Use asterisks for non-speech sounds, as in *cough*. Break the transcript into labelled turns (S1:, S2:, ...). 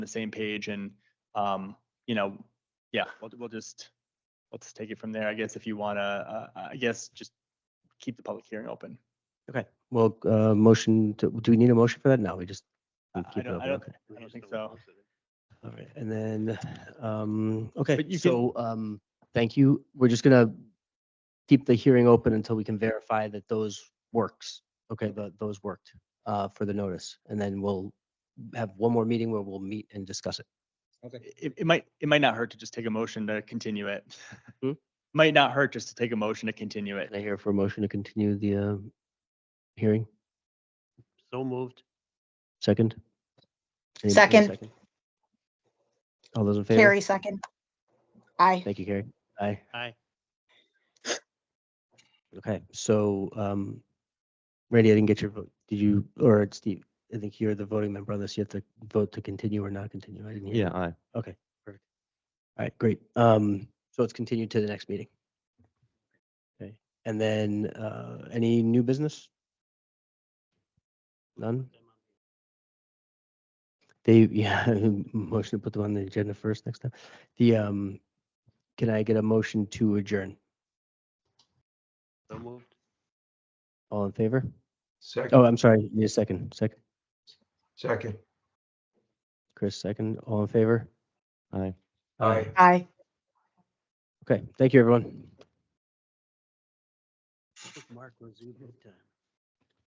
S1: the same page and, um, you know, yeah, we'll, we'll just, let's take it from there. I guess if you want to, uh, I guess just keep the public hearing open.
S2: Well, uh, motion to, do we need a motion for that? No, we just. we
S1: Uh, I- I
S2: keep it
S1: don't- I
S2: open,
S1: don't
S2: okay.
S1: I don't think so.
S2: All right, and then, um, okay,
S1: But you can-
S2: so, um, thank you. We're just gonna keep the hearing open until we can verify that those works. Okay, tho- those worked, uh, for the notice. And then we'll have one more meeting where we'll meet and discuss it.
S1: It, it might, it might not hurt to just take a motion to continue it.
S2: Hmm?
S1: *laughs* Might not hurt just to take a motion to continue
S2: Can
S1: it.
S2: I hear for a motion to continue the, uh, hearing?
S3: So moved.
S2: Second? Anybody need a
S4: Second.
S2: All those in favor?
S4: Carrie, second. Aye.
S2: Thank you, Carrie. Aye.
S3: Aye.
S2: Okay, so, um, Randy, I didn't get your vote. Did you, or Steve, I think you're the voting member on this. You have to vote to continue or not continue. I didn't hear. you.
S3: aye.
S2: Okay, perfect. All right, great. Um, so it's continued to the next meeting. Okay, and then, uh, any new business? None? They, *laughs* yeah, motion to put them on the agenda first next time. The, um, can I get a motion to adjourn?
S3: So moved.
S2: All in favor? Oh,
S5: Second,
S2: I'm sorry, need a second, second,
S5: second.
S2: Chris, second, all in favor?
S3: Aye.
S5: Aye.
S4: Aye.
S2: Okay, thank you, everyone.
S3: Mark was uh, in good time.